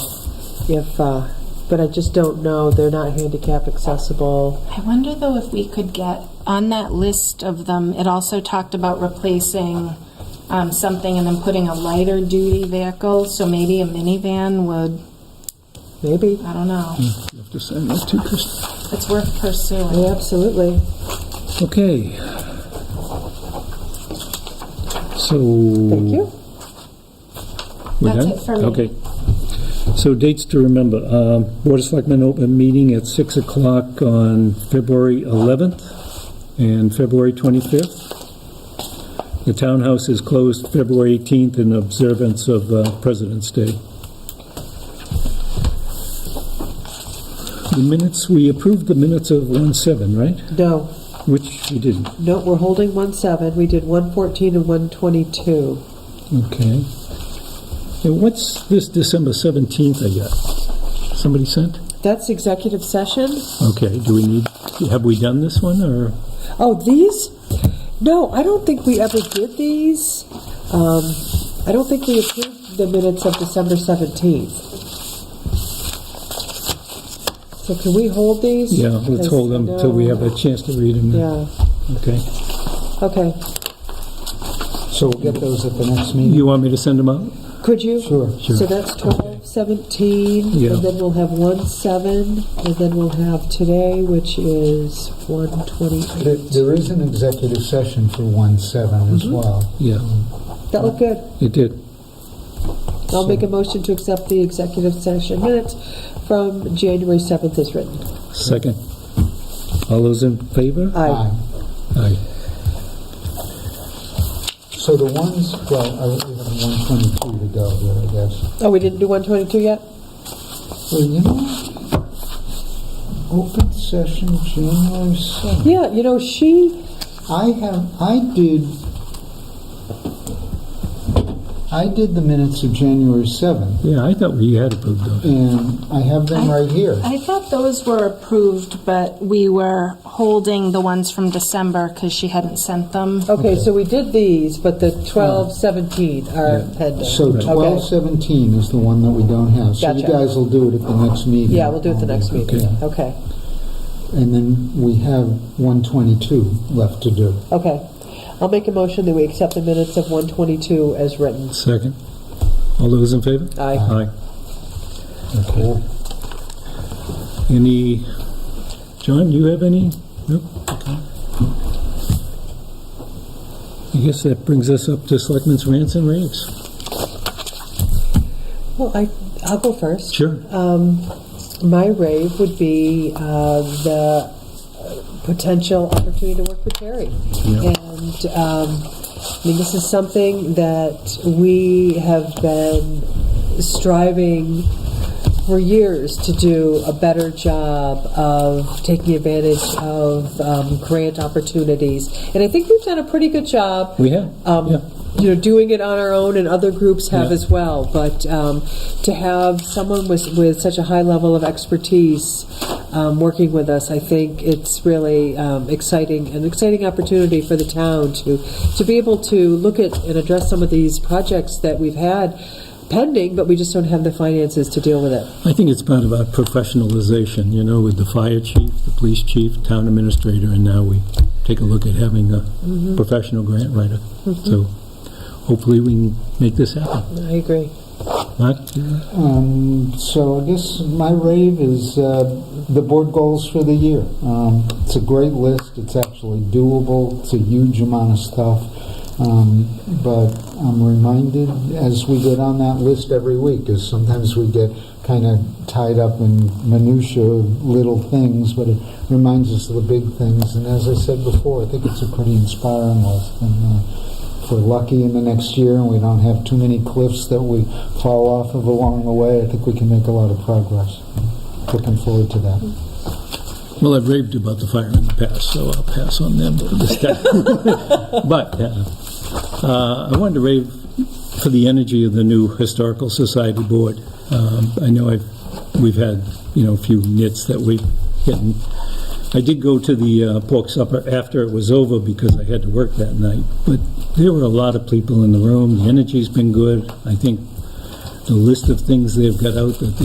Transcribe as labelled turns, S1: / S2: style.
S1: if, uh, but I just don't know, they're not handicap accessible.
S2: I wonder though if we could get, on that list of them, it also talked about replacing um, something and then putting a lighter duty vehicle, so maybe a minivan would,
S1: Maybe,
S2: I don't know.
S3: You have to send that to Chris.
S2: It's worth pursuing.
S1: Yeah, absolutely.
S3: Okay. So.
S1: Thank you.
S3: We're
S2: That's
S3: done?
S2: it for me.
S3: Okay. So dates to remember, um, Board of Selectmen open meeting at 6 o'clock on February 11th and February 25th. The townhouse is closed February 18th in observance of uh, President's Day. The minutes, we approved the minutes of 1/7, right?
S1: No,
S3: Which we didn't.
S1: no, we're holding one seven, we did one fourteen and one twenty-two.
S3: Okay. And what's this December 17th I got? Somebody sent?
S1: That's executive session?
S3: Okay, do we need, have we done this one, or?
S1: Oh, these? No, I don't think we ever did these. Um, I don't think we approved the minutes of December 17th. So can we hold these?
S3: Yeah, let's hold them until we have a chance to read them.
S1: Yeah,
S3: Okay.
S1: okay.
S4: So we'll get those at the next meeting?
S3: You want me to send them out?
S1: Could you?
S4: Sure, sure.
S1: So that's 12, 17,
S3: Yeah.
S1: and then we'll have 1, 7, and then we'll have today, which is 120.
S4: There- There is an executive session for 1/7
S1: Mm-hmm.
S4: as well.
S3: Yeah,
S1: That looked good.
S3: it did.
S1: I'll make a motion to accept the executive session minutes from January 7th as written.
S3: Second. All those in favor?
S1: Aye.
S3: Aye.
S4: So the ones, well, I we have 122 to go here, I guess.
S1: Oh, we didn't do 122 yet?
S4: Well, you know, open session January 7th.
S1: Yeah, you know, she,
S4: I have, I did, I did the minutes of January 7th,
S3: Yeah, I thought we had approved those.
S4: and I have them right here.
S2: I thought those were approved, but we were holding the ones from December because she hadn't sent them.
S1: okay, so we did these, but the 12, 17 are pending.
S4: So
S1: Okay.
S4: 1217 is the one that we don't have. So you
S1: Gotcha.
S4: guys will do it at the next meeting.
S1: Yeah, we'll do it the next meeting.
S4: Yeah.
S1: Okay,
S4: And then we have 122 left to do.
S1: okay. I'll make a motion that we accept the minutes of 122 as written.
S3: Second. All those in favor?
S1: Aye.
S3: Aye.
S4: Okay.
S3: Any, John, you have any? Nope. Okay. I guess that brings us up to Selectmen's rants and raves.
S1: Well, I, I'll go first.
S3: Sure.
S1: Um, my rave would be uh, the uh, potential opportunity to work with Terry.
S3: Yeah.
S1: And um, I mean, this is something that we have been striving for years to do a better job of taking advantage of um, grant opportunities. And I think we've done a pretty good job
S3: We have?
S1: um,
S3: Yeah.
S1: you know, doing it on our own, and other groups have
S3: Yeah.
S1: as well. But um, to have someone with with such a high level of expertise um, working with us, I think it's really um, exciting an exciting opportunity for the town to to be able to look at and address some of these projects that we've had pending, but we just don't have the finances to deal with it.
S3: I think it's part of our professionalization, you know, with the fire chief, the police chief, town administrator, and now we take a look at having a professional grant writer. So hopefully we can make this happen.
S1: I agree.
S3: Mark?
S4: Um, so I guess my rave is uh, the board goals for the year. Um, it's a great list. It's actually doable. It's a huge amount of stuff. Um, but I'm reminded as we go down that list every week, because sometimes we get kind of tied up in minutia, little things, but it reminds us of the big things. And as I said before, I think it's a pretty inspiring list. And, uh, if we're lucky in the next year and we don't have too many cliffs that we fall off of along the way, I think we can make a lot of progress. Looking forward to that.
S3: Well, I've raved about the fire in the past, so I'll pass on them this time. But uh, uh, I wanted to rave for the energy of the new Historical Society Board. Um, I know I've, we've had, you know, a few nits that we've gotten. I did go to the uh, pork supper after it was over because I had to work that night, but there were a lot of people in the room. The energy's been good. I think the list of things they've got out that